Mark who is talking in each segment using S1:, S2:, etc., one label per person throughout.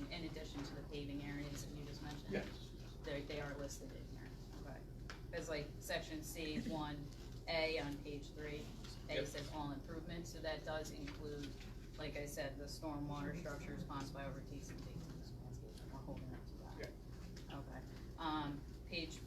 S1: relation to the paving areas that you just mentioned?
S2: Yes.
S1: They, they are listed in here, okay. It's like section C one A on page three, A
S2: Yep.
S1: says all improvements, so that does include, like I said, the stormwater structure response by over T C D. We're holding up to that. Okay, um, page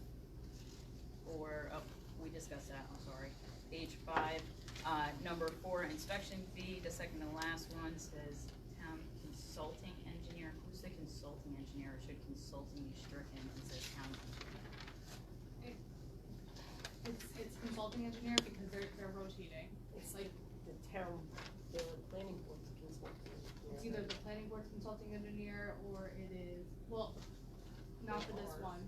S1: four, oh, we discussed that, I'm sorry. Page five, uh, number four, inspection fee, the second to last one says town consulting engineer. Who's the consulting engineer? Or Should consulting be stricken and says town engineer?
S3: It's, it's consulting engineer because they're, they're rotating. It's like,
S4: the town, the planning board's consulting.
S3: it's either the planning board's consulting engineer or it is, well, not for this one.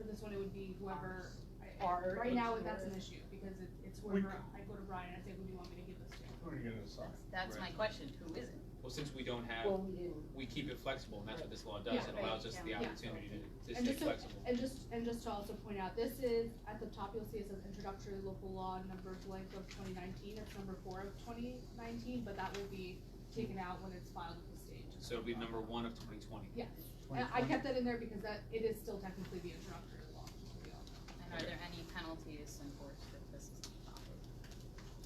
S3: For this one, it would be whoever, I- I-
S4: Our
S3: right now,
S4: engineer.
S3: that's an issue because it, it's
S2: We-
S3: whoever, I go to Brian, I say, who do you want me to give this to?
S2: Who are you gonna assign?
S1: That's my question, who is it?
S5: Well, since we don't
S4: Well,
S5: have,
S4: we didn't,
S5: we keep it flexible, and that's what this law does,
S3: Yeah,
S5: it
S3: right,
S5: allows us the
S3: yeah.
S5: opportunity to, to
S3: And
S5: stay
S3: just so-
S5: flexible.
S3: And just, and just to also point out, this is, at the top, you'll see it says introductory local law number blank of twenty nineteen, it's number four of twenty nineteen, but that will be taken out when it's filed with the state.
S5: So it'll be number one of twenty twenty.
S3: Yes, And I kept that in there because that, it is still technically the introductory law.
S1: And are there any penalties enforced if this is not followed?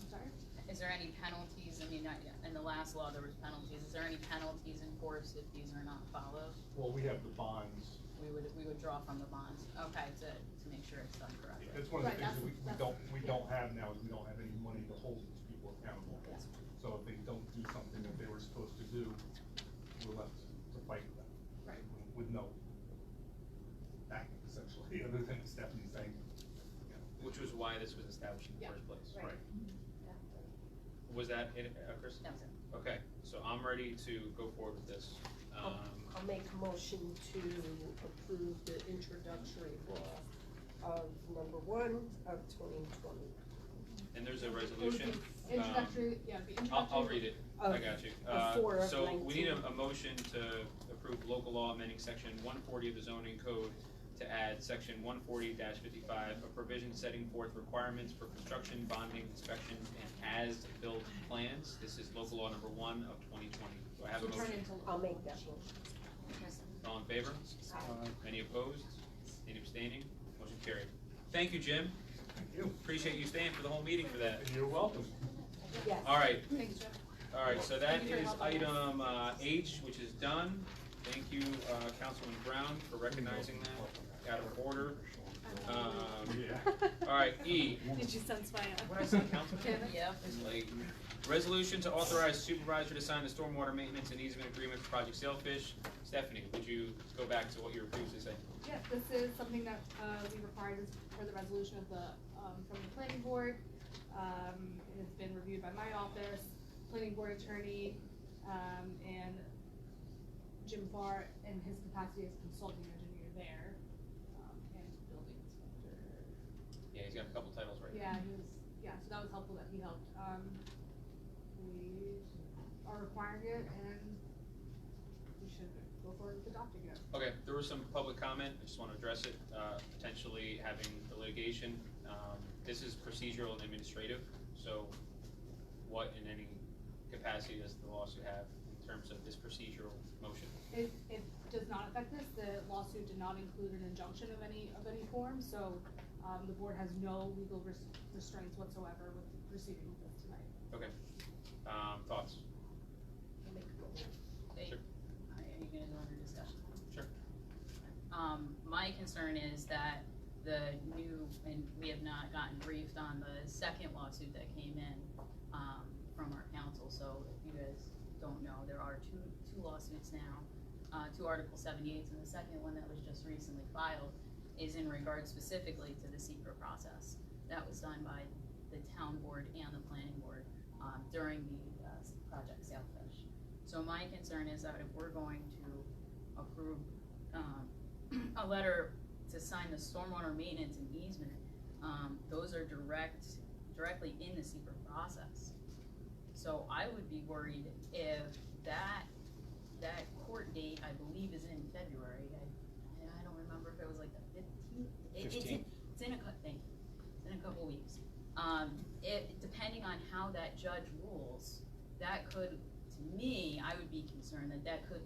S3: I'm sorry?
S1: Is there any penalties, I mean, not yet, in the last law, there was penalties, is there any penalties enforced if these are not followed?
S2: Well, we have the bonds,
S1: We would, we would draw from the bonds, okay, to, to make sure it's done correctly.
S2: that's one of the
S3: Right,
S2: things that we, we
S3: that's-
S2: don't, we
S3: yeah.
S2: don't have now, is we don't have any money to hold these people accountable.
S1: Yes.
S2: So if they don't do something that they were supposed to do, we're left to fight with them.
S3: Right.
S2: With no backing essentially, other than Stephanie's saying, you know,
S5: Which was why this was established in the
S3: Yeah. Mm-hmm.
S5: first place.
S4: Right.
S2: right,
S5: Was that it, uh, Chris?
S1: That was it.
S5: Okay, so I'm ready to go forward with this.
S3: Oh.
S5: Um,
S4: I'll make a motion to approve the introductory law of number one of twenty twenty.
S5: and there's a
S3: It would be
S5: resolution. Um,
S3: Introductory, yeah, the introductory.
S5: I'll, I'll read it, I
S4: Of-
S5: got you.
S4: of
S5: Uh,
S4: Oh, four of
S5: So we need a,
S4: 19.
S5: a motion to approve local law amending section one forty of the zoning code to add section one forty fifty-five, a provision setting forth requirements for construction, bonding, inspection, and as-built plans. This is local law number one of twenty twenty. Do I have a
S3: Should turn
S5: motion?
S3: into law.
S4: I'll make that motion.
S5: All in favor?
S2: uh,
S5: Any opposed? Any abstaining? Motion carried. Thank you, Jim.
S2: thank you.
S5: Appreciate you staying for the whole meeting for that.
S2: And you're welcome.
S4: Yes.
S5: All right,
S3: Thanks, Jeff.
S5: All right, so that
S3: Thank you for
S5: is
S3: helping us.
S5: item uh, H, which is done. Thank you, uh, Councilman Brown, for recognizing that, out of order. Um,
S2: Yeah.
S5: All right, E,
S3: Did you sense my? uh,
S5: what I say, Councilman?
S3: Kevin?
S1: Yeah,
S5: It's late. Resolution to authorize supervisor to sign the stormwater maintenance and easement agreement for Project Sailfish. Stephanie, would you go back to what you were previously saying?
S3: Yes, this is something that, uh, we required as per the resolution of the, um, from the planning board. Um, it has been reviewed by my office, planning board attorney, um, and Jim Farr in his capacity as consulting engineer there, um, and building inspector.
S5: Yeah, he's got a couple titles right now.
S3: Yeah, he was, yeah, so that was helpful that he helped. Um, we are requiring it and we should go forward with adopting it.
S5: Okay, there was some public comment, I just want to address it, uh, potentially having the litigation. Um, This is procedural and administrative, so what in any capacity does the lawsuit have in terms of this procedural motion?
S3: It, it does not affect this. The lawsuit did not include an injunction of any, of any form, so, um, the board has no legal res- restraints whatsoever with proceeding with this tonight.
S5: Um, Thoughts?
S4: I'll make a motion.
S1: They-
S5: Sure.
S1: Are you gonna go under discussion?
S5: Sure.
S1: Um, my concern is that the new, and we have not gotten briefed on the second lawsuit that came in, um, from our council, so if you guys don't know, there are two, two lawsuits now, uh, two Article seventy-eights, and the second one that was just recently filed is in regard specifically to the secret process. That was done by the town board and the planning board, um, during the, uh, Project Sailfish. So my concern is that if we're going to approve, um, a letter to sign the stormwater maintenance and easement, um, those are direct, directly in the secret process. So I would be worried if that, that court date, I believe, is in February, I, I don't remember if it was like the fifteenth. It's in,
S5: 15th.
S1: it's in a, cou- thank you, it's in a couple weeks. Um, it, depending on how that judge rules, that could, to me, I would be concerned that that could